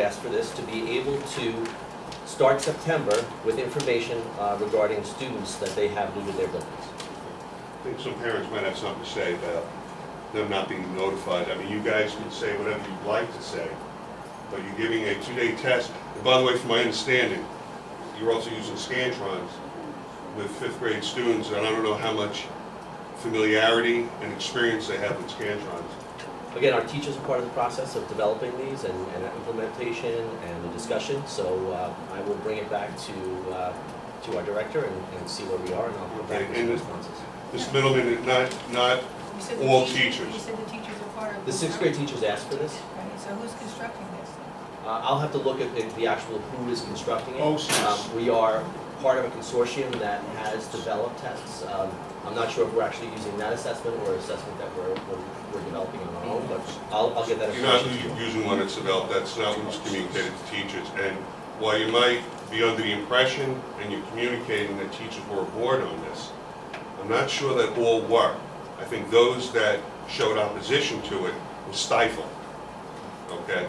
asked for this, to be able to start September with information uh, regarding students that they have new to their buildings. I think some parents might have something to say about them not being notified. I mean, you guys can say whatever you'd like to say, but you're giving a two-day test. And by the way, from my understanding, you're also using Scantrons with fifth-grade students, and I don't know how much familiarity and experience they have with Scantrons. Again, our teachers are part of the process of developing these and, and implementation and the discussion, so uh, I will bring it back to, uh, to our director and, and see where we are, and I'll come back with some responses. This middleman, not, not, You said the All teacher- teachers. You said the teachers are part of. The sixth grade teachers asked for this. Right, so who's constructing this? Uh, I'll have to look at the, the actual who is constructing it. Oh, yes. Um, We are part of a consortium that has developed tests. Um, I'm not sure if we're actually using that assessment or assessment that we're, we're, we're developing on our own, but I'll, I'll get that you're not information to you. using one that's developed, that's not what's communicated to teachers. And while you might be under the impression, and you're communicating that teachers were aboard on this, I'm not sure that all were. I think those that showed opposition to it were stifled, okay?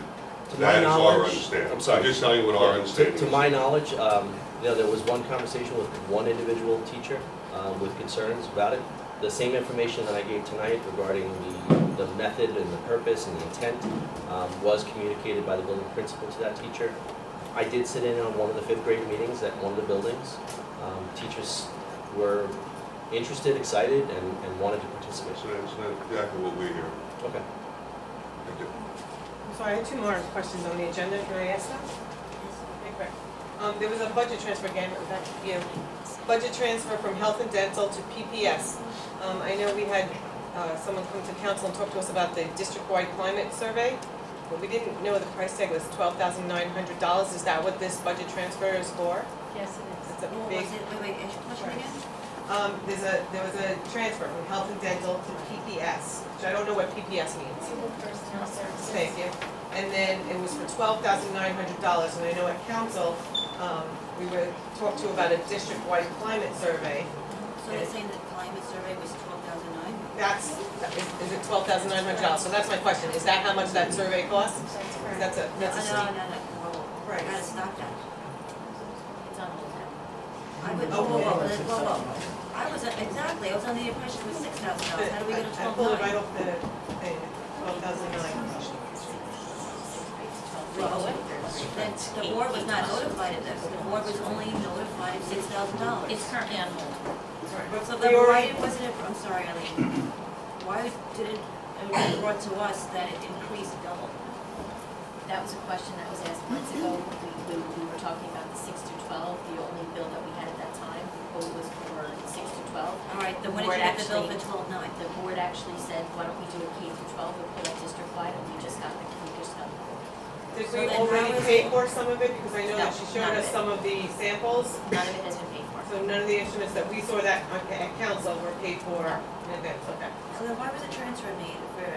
To my That is our knowledge- understanding. I'm sorry. I'm just telling you what our Yeah, to- understanding To is. my knowledge, um, you know, there was one conversation with one individual teacher, um, with concerns about it. The same information that I gave tonight regarding the, the method and the purpose and the intent, um, was communicated by the building principal to that teacher. I did sit in on one of the fifth grade meetings at one of the buildings. Um, teachers were interested, excited, and, and wanted to participate. So that's not exactly what we hear. Okay. I'm sorry, I had two more questions on the agenda, can I ask them? Okay. Um, there was a budget transfer again, back to you. Budget transfer from health and dental to PPS. Um, I know we had, uh, someone come to council and talk to us about the district-wide climate survey, but we didn't know the price tag was twelve thousand nine hundred dollars, is that what this budget transfer is for? Yes, it is. It's a What big- was it? Wait, wait, is your question again? Um, there's a, there was a transfer from health and dental to PPS, which I don't know what PPS means. Civil personnel services. Thank you. And then it was for twelve thousand nine hundred dollars, and I know at council, um, we were talked to about a district-wide climate survey. So you're saying the climate survey was twelve thousand nine? That's, that is is it twelve thousand nine hundred dollars? So that's my question, is that how much that survey costs? That's That's a, that's a No, steep. no, no, no, whoa, Right. you gotta stop that. It's on hold now. I would, Oh, whoa, whoa, yeah. whoa, whoa, whoa. I was, uh, exactly, I was under the impression it was six thousand dollars, how do we I- get to I twelve pulled it right nine? off the thing, twelve thousand nine. Well, then the board was not notified of this, the board was only notified of six thousand dollars. It's currently on hold. So But then we why already, wasn't it, I'm sorry, Eileen, why did it, it was brought to us that it increased double? That was a question that was asked months ago. We, we- we were talking about the six to twelve, the only bill that we had at that time, the quote was for six to twelve. All right, then when did Word you get the bill actually- for twelve nine? The board actually said, why don't we do a K through twelve, we put it district-wide, and we just got the, we just got the quote. did so we then how already is pay it- for some of it? Because I know that No, she showed none of us it. some of the samples. None of it has been paid for. So none of the instruments that we saw that on- at council were paid for in advance, okay. So then why was a transfer made for,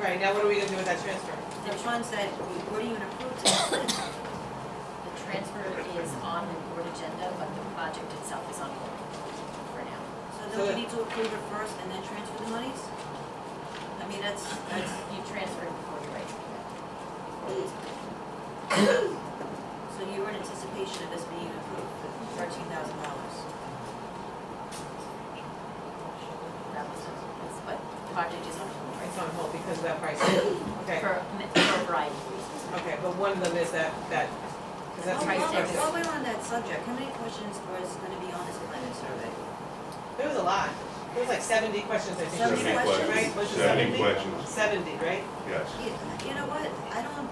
Right, now what are we gonna do with that transfer? then Sean said, what are you gonna approve to? The transfer is on the board agenda, but the project itself is on hold for now. So So then it- we need to approve it first and then transfer the monies? I mean, that's, that's, You transferred before you write. so you were in anticipation of this being approved for thirteen thousand dollars. That was, but the project is on hold right It's on hold because of that price. Okay, for, for a variety of reasons. okay, but one of them is that, that, because that's Oh, my While we're- while question. we're on that subject, how many questions was gonna be on this climate survey? There was a lot. There was like seventy questions, I think. 70 right? questions. Right, was Seventy it seventy? questions, Seventy, right? yes. You you know what, I don't,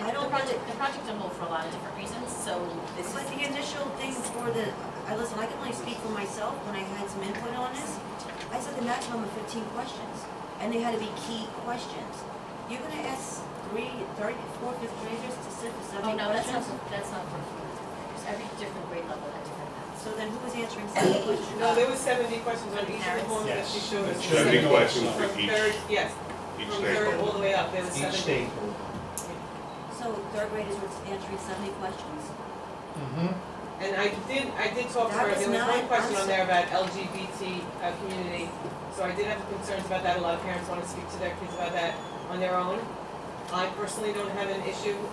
I The don't project, the project on hold for a lot of different reasons, so this But is, the initial thing for the, I listen, I can only speak for myself when I had some input on this. I said the maximum of fifteen questions, and they had to be key questions. You're gonna ask three, thirty, four fifth graders to sit for oh seventy no, that's not, questions? that's not for, there's every different grade level has different math. So then who was answering seventy questions? No, there was seventy questions on each of the homes that she showed us. Seventy questions From for each, third, yes, each from third all stakeholder. the way up, there was Each seventy. stakeholder. So third graders were answering seventy questions? And I did, I did talk to That her, was there was not- one question I'm on there about LGBT uh, community. So I did have concerns about that, a lot of parents want to speak to their kids about that on their own. I personally don't have an issue